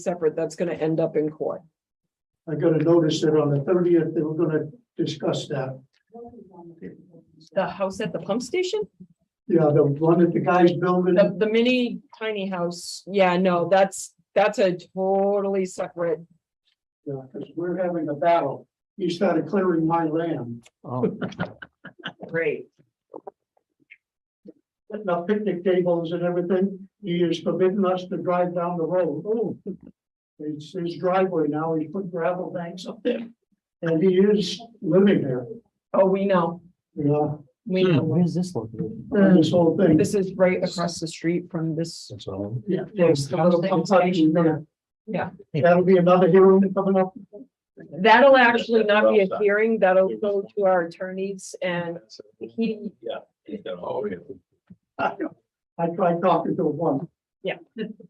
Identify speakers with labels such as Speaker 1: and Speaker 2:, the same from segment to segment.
Speaker 1: separate, that's gonna end up in court.
Speaker 2: I got a notice that on the thirtieth, they were gonna discuss that.
Speaker 1: The house at the pump station, Mm-hmm.
Speaker 2: Yeah, the one that the guy's building,
Speaker 1: the, the mini tiny house, yeah, no, that's, that's a totally separate.
Speaker 2: because we're having a battle. He started clearing my land.
Speaker 3: Oh,
Speaker 1: Great.
Speaker 2: Putting up picnic tables and everything. He is forbidding us to drive down the road. Oh. It's his driveway now. He's put gravel banks up there. And he is living there,
Speaker 1: Oh, we know,
Speaker 2: you know,
Speaker 1: we
Speaker 4: Hmm.
Speaker 1: know.
Speaker 3: where's this located?
Speaker 2: this whole thing.
Speaker 1: This is right across the street from this.
Speaker 3: That's all.
Speaker 2: Yeah.
Speaker 1: There's the little pump station there.
Speaker 2: That'll be another hearing coming up.
Speaker 1: That'll actually not be a hearing, that'll go to our attorneys and he,
Speaker 5: Oh, yeah.
Speaker 2: I I tried talking to him once.
Speaker 1: Yeah.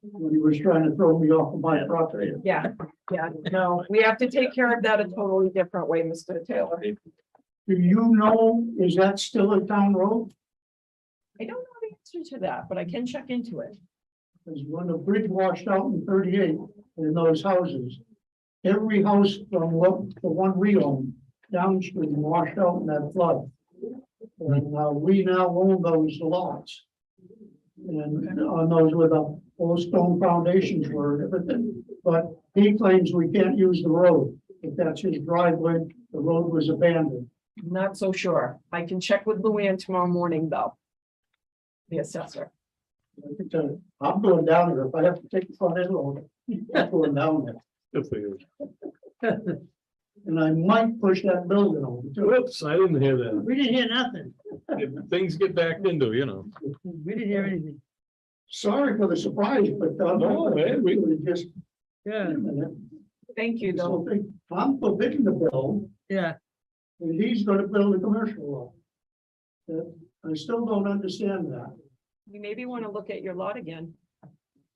Speaker 2: When he was trying to throw me off of my property.
Speaker 1: yeah, yeah, no, we have to take care of that a totally different way, Mr. Taylor.
Speaker 2: Do you know, is that still a town road?
Speaker 1: I don't know the answer to that, but I can check into it.
Speaker 2: Because when the bridge washed out in thirty-eight in those houses, every house from what, the one we own downstream washed out in that flood. And uh, we now own those lots. And on those with the old stone foundations were and everything, but he claims we can't use the road. If that's his driveway, the road was abandoned.
Speaker 1: I'm Not so sure. I can check with Luann tomorrow morning, though. The assessor.
Speaker 2: I think that- I'm going down there, if I have to take the front end load, I'm going down there.
Speaker 5: Good for you.
Speaker 2: And I might push that building over too.
Speaker 5: Whoops, I didn't hear that.
Speaker 2: We didn't hear nothing.
Speaker 5: If Things get backed into, you know.
Speaker 2: We didn't hear anything. Sorry for the surprise, but. uh,
Speaker 5: No, man, we-
Speaker 2: were Just.
Speaker 6: Yeah,
Speaker 1: Thank you, though.
Speaker 2: So, I'm forbidding the bill,
Speaker 6: yeah,
Speaker 2: and he's gonna build a commercial law. I still don't understand that,
Speaker 1: We maybe want to look at your lot again.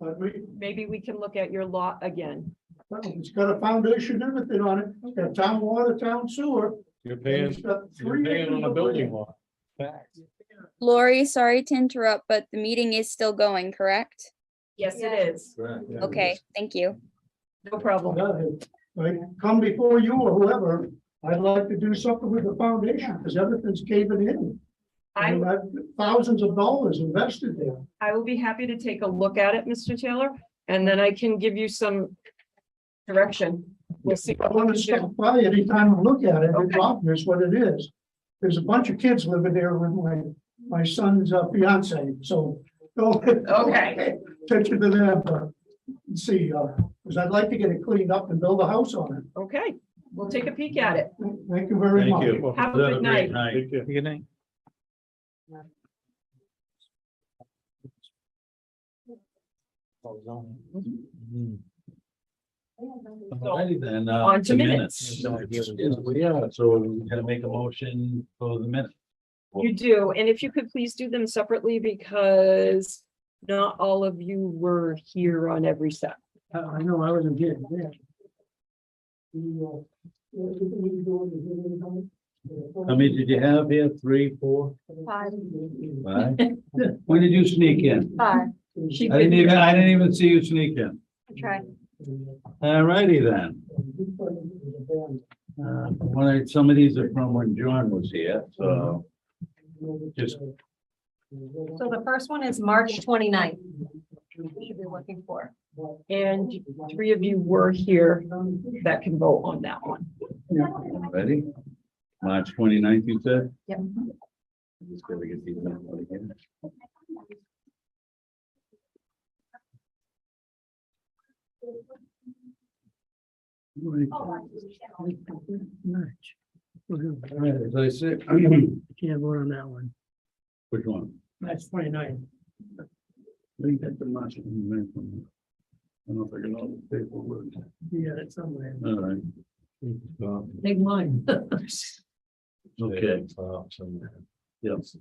Speaker 2: but we,
Speaker 1: Maybe we can look at your lot again.
Speaker 2: well, it's got a foundation, and everything on it, it's got town water, town sewer.
Speaker 5: You're
Speaker 2: and
Speaker 5: paying,
Speaker 2: it's got
Speaker 5: you're
Speaker 2: three
Speaker 5: paying on
Speaker 2: acres
Speaker 5: a
Speaker 2: of
Speaker 5: building
Speaker 2: land.
Speaker 5: lot. Facts.
Speaker 7: Lori, sorry to interrupt, but the meeting is still going, correct?
Speaker 1: Yes, it is.
Speaker 7: Okay, thank you.
Speaker 1: No problem.
Speaker 2: Like, come before you or whoever, I'd like to do something with the foundation, because everything's caving in. I
Speaker 1: I,
Speaker 2: mean, I've- Thousands of dollars invested there.
Speaker 1: I will be happy to take a look at it, Mr. Taylor, and then I can give you some direction. We'll see.
Speaker 2: I want to stop by anytime and look at it, it's obvious what it is. There's a bunch of kids living there with my, my son's uh, fiance, so.
Speaker 1: Okay.
Speaker 2: Attention to them, uh, and see, uh, because I'd like to get it cleaned up and build a house on it.
Speaker 1: Okay, we'll take a peek at it.
Speaker 2: Thank you very much.
Speaker 1: Have a good night.
Speaker 5: Take care.
Speaker 3: Good night.
Speaker 4: Alrighty then, uh.
Speaker 1: On to
Speaker 4: the
Speaker 1: minutes.
Speaker 4: No idea what it is, but Yeah, so we gotta make a motion for the minute.
Speaker 1: You do, and if you could please do them separately because not all of you were here on every set.
Speaker 2: I, I know, I wasn't here, yeah. You, uh, what did we do on the-
Speaker 4: How many did you have here? Three, four,
Speaker 8: Five.
Speaker 4: five? When did you sneak in?
Speaker 8: Five,
Speaker 1: She
Speaker 4: I didn't even, I didn't even see you sneak in.
Speaker 8: I tried.
Speaker 4: Alrighty then. Uh, one, of- some of these are from when John was here, so. Just-
Speaker 8: So the first one is March 29th. We should be looking for.
Speaker 1: And three of you were here that can vote on that one.
Speaker 2: Mm-hmm.
Speaker 4: Ready? March 29th, you said?
Speaker 8: Yep.
Speaker 4: Just gotta get these numbers again. Oh,
Speaker 6: March. We're gonna-
Speaker 4: All right, as I said,
Speaker 6: we Can't vote on that one.
Speaker 4: which one?
Speaker 2: That's twenty-nine.
Speaker 4: I think that's the March. I don't know if I can all the paperwork.
Speaker 2: Yeah, it's somewhere.
Speaker 4: All right,
Speaker 2: Big mine.
Speaker 4: okay. Yes.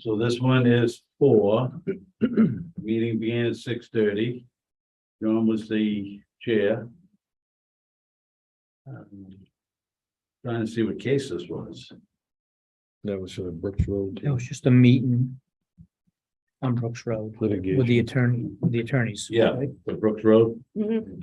Speaker 4: So this one is four. Meeting began at six thirty. John was the chair. Um, Trying to see what case this was.
Speaker 5: That was uh, Brooks Road.
Speaker 3: It was just a meeting. on Brooks Road
Speaker 4: Litigation.
Speaker 3: with the attorney, with the attorneys.
Speaker 4: Yeah, the Brooks Road.
Speaker 1: Mhm.